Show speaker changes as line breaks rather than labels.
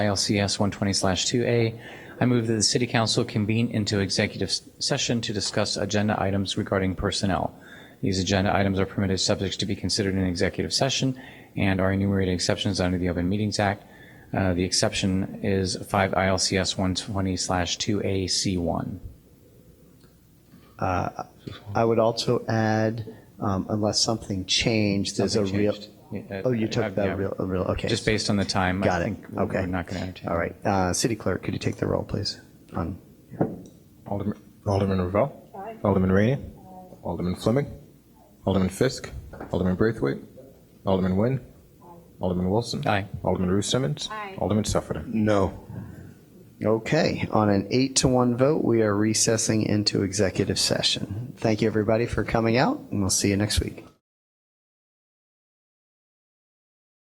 ILCS 120/2A, I move that the city council convene into executive s- session to discuss agenda items regarding personnel. These agenda items are permitted subjects to be considered in executive session and are enumerated exceptions under the Open Meetings Act. Uh, The exception is 5 ILCS 120/2AC1.
I would also add, um, unless something changed, there's a
Something
real.
changed. Yeah,
Oh, you
I-
took
I've-
that
yeah.
real, a real, okay.
Just based on the time,
Got
I
it.
think we're
Okay.
we're not going to entertain.
All right. Uh, City Clerk, could you take the roll, please? On-
Alderman, Alderman Ravel. Alderman Rainey. Alderman Fleming. Alderman Fisk. Alderman Braithwaite. Alderman Nguyen. Alderman Wilson.
Aye.
Alderman Rue Simmons. Aye. Alderman Sufferton.
No. Okay, on an eight to one vote, we are recessing into executive session. Thank you, everybody, for coming out, and we'll see you next week.